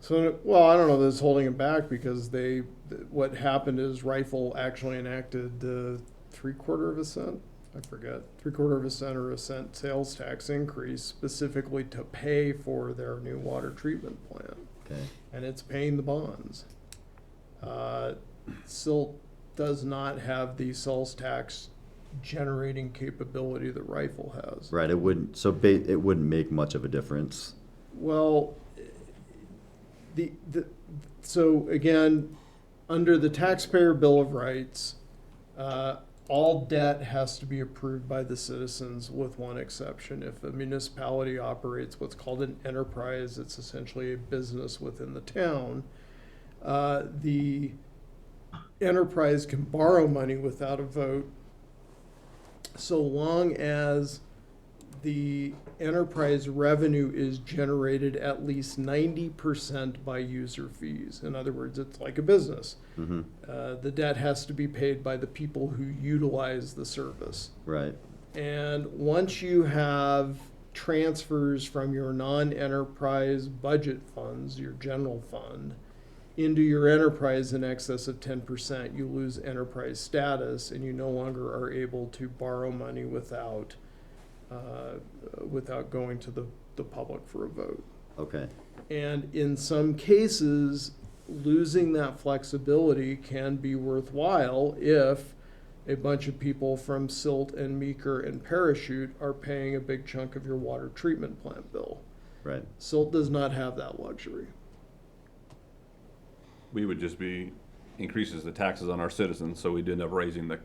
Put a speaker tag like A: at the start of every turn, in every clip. A: So, well, I don't know that it's holding it back because they, what happened is Rifle actually enacted the three quarter of a cent, I forget, three quarter of a cent or a cent sales tax increase specifically to pay for their new water treatment plant.
B: Okay.
A: And it's paying the bonds. Uh, Silt does not have the sales tax generating capability that Rifle has.
B: Right, it wouldn't, so ba- it wouldn't make much of a difference.
A: Well, the, the, so again, under the taxpayer bill of rights, uh, all debt has to be approved by the citizens with one exception. If a municipality operates what's called an enterprise, it's essentially a business within the town. Uh, the enterprise can borrow money without a vote so long as the enterprise revenue is generated at least ninety percent by user fees. In other words, it's like a business.
B: hmm
A: Uh, the debt has to be paid by the people who utilize the service.
B: right,
A: And once you have transfers from your non-enterprise budget funds, your general fund, into your enterprise in excess of ten percent, you lose enterprise status and you no longer are able to borrow money without, uh, without going to the, the public for a vote.
B: okay,
A: And in some cases, losing that flexibility can be worthwhile if a bunch of people from Silt and Meeker and Parachute are paying a big chunk of your water treatment plant bill.
B: right,
A: Silt does not have that luxury.
C: we would just be increases the taxes on our citizens, so we'd end up raising the,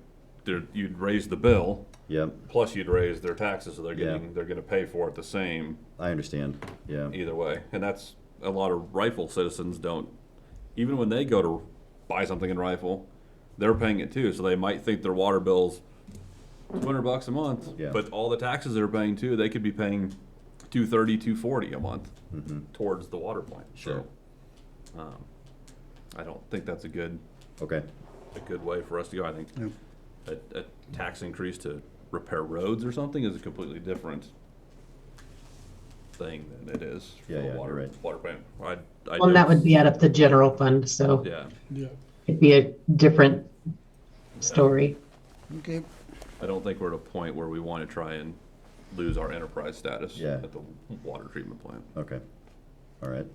C: there, you'd raise the bill,
B: yep,
C: plus you'd raise their taxes, so they're
B: Yeah.
C: getting, they're gonna pay for it the same
B: I understand, yeah,
C: either way. And that's, a lot of rifle citizens don't, even when they go to buy something in rifle, they're paying it too, so they might think their water bill's two hundred bucks a month,
B: Yeah.
C: but all the taxes they're paying too, they could be paying two thirty, two forty a month
B: hmm
C: towards the water plant,
B: Sure.
C: so. um, I don't think that's a good
B: okay,
C: a good way for us to go. I think a, a tax increase to repair roads or something is a completely different thing than it is for
B: Yeah,
C: the
B: yeah, you're
C: water
B: right.
C: water plant. I, I
D: Well, and that
C: don't-
D: would be out of the general fund, so
C: yeah.
A: Yeah.
D: it'd be a different story.
E: Okay,
C: I don't think we're at a point where we want to try and lose our enterprise status
B: Yeah.
C: at the water treatment plant.
B: okay, all right,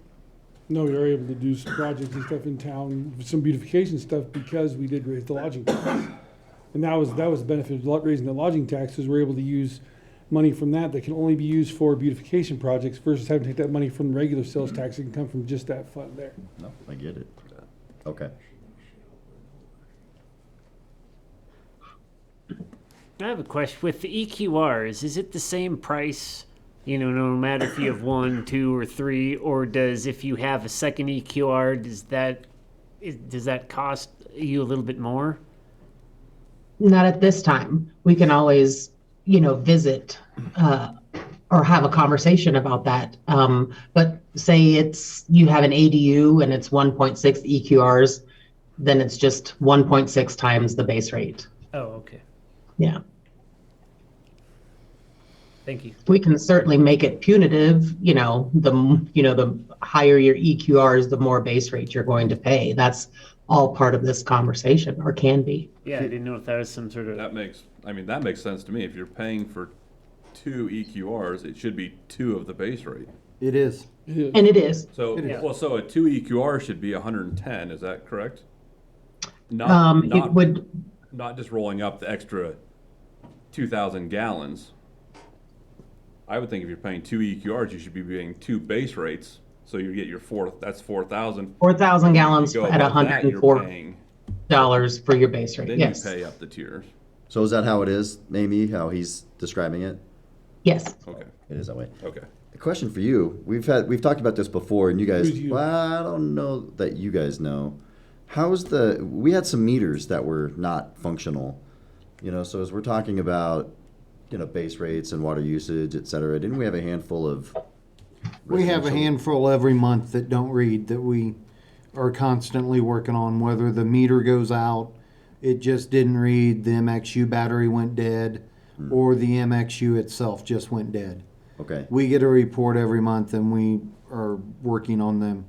F: No, we are able to do some projects and stuff in town, some beautification stuff, because we did raise the lodging tax. And that was, that was the benefit of lo- raising the lodging taxes, we're able to use money from that that can only be used for beautification projects versus having to take that money from regular sales tax, it can come from just that fund there.
B: no, I get it, okay.
G: I have a question. With the EQRs, is it the same price, you know, no matter if you have one, two, or three, or does if you have a second EQR, does that is, does that cost you a little bit more?
D: Not at this time. We can always, you know, visit uh, or have a conversation about that. Um, but say it's you have an ADU and it's 1.6 EQRs, E then it's just 1.6 times the base rate.
G: Oh, okay.
D: Yeah.
G: Thank you.
D: we can certainly make it punitive you know the m- you know the higher your eqrs the more base rate you're going to pay that's all part of this conversation or can be
G: Yeah, I didn't know if that was some sort of
C: That makes, I mean, that makes sense to me. If you're paying for two EQRs, it should be two of the base rate.
E: it is.
D: and it is
C: So,
G: is.
C: well, so a two EQR should be hundred and ten, is that correct? Not,
D: um, it
C: not-
D: would
C: Not just rolling up the extra two thousand gallons. I would think if you're paying two EQRs, you should be paying two base rates, so you get your fourth, that's four thousand.
D: 4000 gallons
C: Go
D: at
C: above that, you're
D: 104
C: paying-
D: dollars for your base rate
C: Then you
D: yes
C: pay up the tiers,
B: So is that how it is, Amy, how he's describing it?
D: yes
C: okay,
B: It is that way.
C: okay.
B: A question for you. We've had we've talked about this before, and you guys.
F: Who's you?
B: Well, I don't know that you guys know. How's the? We had some meters that were not functional. You know, so as we're talking about, you know, base rates and water usage, et cetera, didn't we have a handful of?
E: We have a
B: residential-
E: handful every month that don't read that we are constantly working on, whether the meter goes out, it just didn't read, the MXU battery went dead, or the MXU itself just went dead.
B: Okay.
E: We get a report every month and we are working on them.